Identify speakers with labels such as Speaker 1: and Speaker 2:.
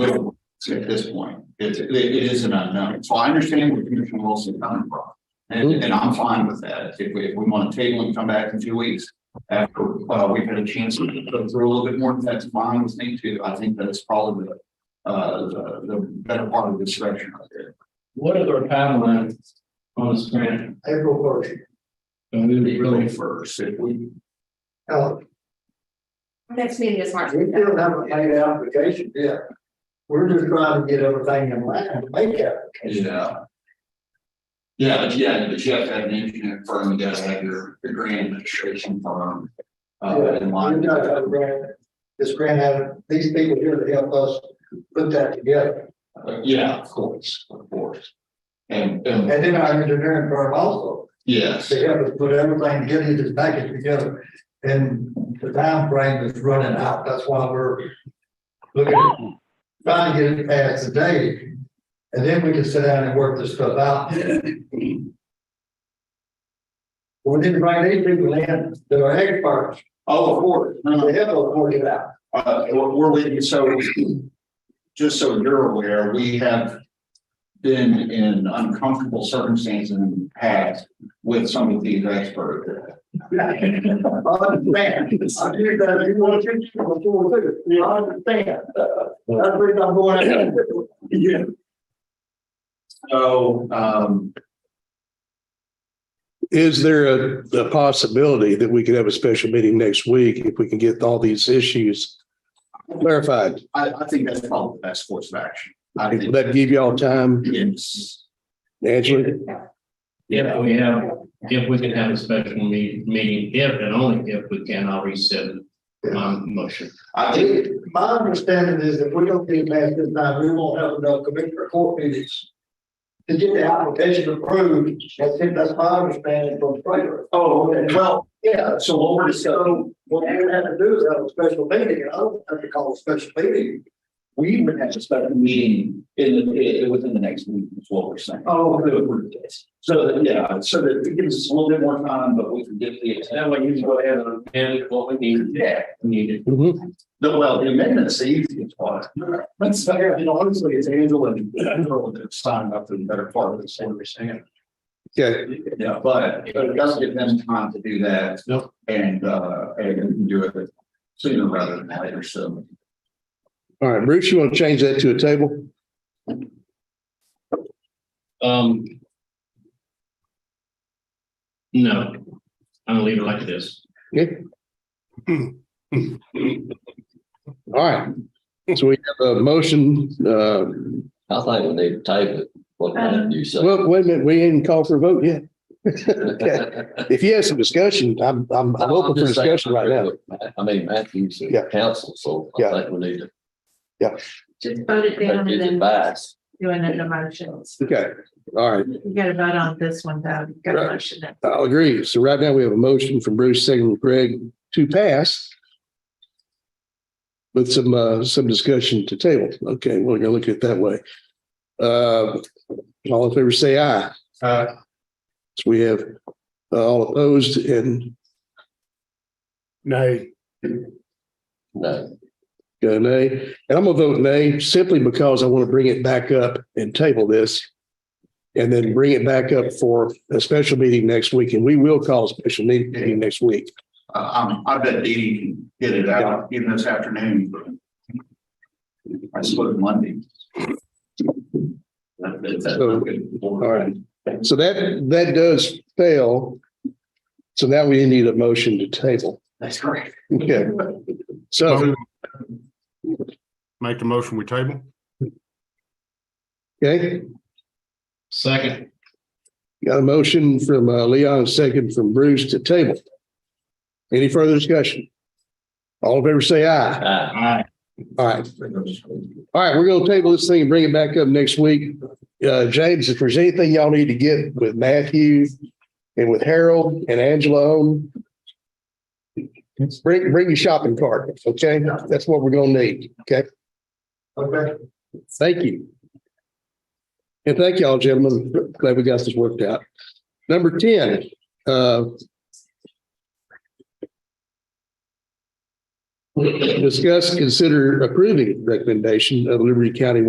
Speaker 1: little at this point. It's, it it is an unknown. So I understand where Commissioner Wilson coming from. And, and I'm fine with that. If we, if we want to table and come back in two weeks after, uh, we've had a chance to go through a little bit more, that's fine with me too. I think that's probably the, uh, the, the better part of the discussion right there.
Speaker 2: What is our timeline on this grant?
Speaker 3: April first,
Speaker 2: And we would
Speaker 1: April
Speaker 2: really,
Speaker 1: first, if we,
Speaker 3: Now,
Speaker 4: Next meeting is March.
Speaker 3: we still haven't made an application yet. We're just trying to get everything in line to make it.
Speaker 1: yeah. Yeah, but yeah, but you have to have an engineering firm, you gotta have your, your grant administration firm. Uh, in
Speaker 3: We're
Speaker 1: line.
Speaker 3: not trying to grant, this grant had, these people here to help us put that together.
Speaker 1: Uh, Yeah, of course, of course. And,
Speaker 3: And
Speaker 1: and,
Speaker 3: then our engineering firm also,
Speaker 1: yes,
Speaker 3: to help us put everything, get this package together. And the time frame is running out, that's why we're looking, at trying to get it passed today. And then we can sit down and work this stuff out. We need to bring these people in that are experts,
Speaker 1: oh, of course, no, no,
Speaker 3: to help us work it out.
Speaker 1: uh, we're, we're leaving, so. Just so you're aware, we have. Been in uncomfortable circumstances in the past with some of these experts.
Speaker 3: I understand. I do that, you want to teach people before too, you understand. That's the reason I'm going out.
Speaker 1: Yeah. So, um,
Speaker 5: Is there a, a possibility that we could have a special meeting next week if we can get all these issues clarified?
Speaker 1: I, I think that's probably the best course of action. I
Speaker 5: Will
Speaker 1: think,
Speaker 5: that give y'all time,
Speaker 1: yes,
Speaker 5: Angela?
Speaker 2: if we have, if we can have a special me- meeting, if and only if we can, I'll reset my motion.
Speaker 1: I think,
Speaker 3: It- My understanding is if we don't get it past this time, we won't have enough commissioner court meetings. To get the application approved, that's it, that's my understanding from Trader.
Speaker 1: oh, okay, well,
Speaker 3: Yeah,
Speaker 1: so what we're discussing,
Speaker 3: what we would have to do is have a special meeting, and I don't have to call a special meeting.
Speaker 1: We would have a special meeting in, the- i- within the next week, is what we're saying.
Speaker 3: Oh,
Speaker 1: That would work, yes. So, that- yeah, so that it gives us a little bit more time, but we can get the,
Speaker 2: That way you can go ahead and amend what we need, yeah, we need it.
Speaker 6: Mm-hmm.
Speaker 5: Mhm.
Speaker 1: the, well, the amendment's the easiest part. But so, you know, honestly, it's Angela and Earl that have signed up to the better part of this, what we're saying.
Speaker 5: Okay,
Speaker 1: Yeah, but but it does give them time to do that.
Speaker 2: Nope.
Speaker 1: And, uh, and we can do it sooner rather than later, so.
Speaker 5: all right, Bruce, you want to change that to a table?
Speaker 2: Um. No, I'm gonna leave it like it is.
Speaker 5: Okay. All right, so we have a motion, uh,
Speaker 6: I think we need to table it, what
Speaker 4: Um,
Speaker 6: did you say?
Speaker 5: well, wait a minute, we didn't call for a vote yet. Okay. If you have some discussion, I'm, I'm, I'm open for
Speaker 6: just saying,
Speaker 5: discussion right now.
Speaker 6: I mean, Matthew's
Speaker 5: Yeah.
Speaker 6: a council, so I
Speaker 5: Yeah.
Speaker 6: think we need to
Speaker 4: Just vote it
Speaker 6: take
Speaker 4: down
Speaker 6: his
Speaker 4: and then
Speaker 6: advice.
Speaker 4: doing it in motions.
Speaker 5: Okay, all right.
Speaker 4: You gotta vote on this one, though. You gotta
Speaker 5: Right.
Speaker 4: motion it.
Speaker 5: I'll agree. So right now we have a motion from Bruce, second from Greg to pass. With some, uh, some discussion to table. Okay, we're gonna look at it that way. Uh, all in favor, say aye. Aye. So we have, uh, all opposed and
Speaker 7: Nay.
Speaker 6: No,
Speaker 5: go nay. And I'm gonna vote nay simply because I want to bring it back up and table this. And then bring it back up for a special meeting next week, and we will call a special meeting next week.
Speaker 1: Uh, um, I bet Dee Dee can get it out even this afternoon. I split Monday. That- that- that's
Speaker 5: So,
Speaker 1: good.
Speaker 5: all right. So that, that does fail. So now we need a motion to table.
Speaker 1: That's correct.
Speaker 5: Okay. So,
Speaker 7: Make the motion, we table?
Speaker 5: okay,
Speaker 2: Second,
Speaker 5: got a motion from uh, Leon, a second from Bruce to table. Any further discussion? All in favor, say aye.
Speaker 6: aye.
Speaker 2: aye,
Speaker 5: All right. All right, we're gonna table this thing and bring it back up next week. Uh, James, if there's anything y'all need to get with Matthew and with Harold and Angela on, bring, bring your shopping cart, okay? That's what we're gonna need, okay?
Speaker 3: Okay.
Speaker 5: Thank you. And thank y'all, gentlemen. Glad we got this worked out. Number ten, uh. Discuss, consider approving recommendation of Liberty County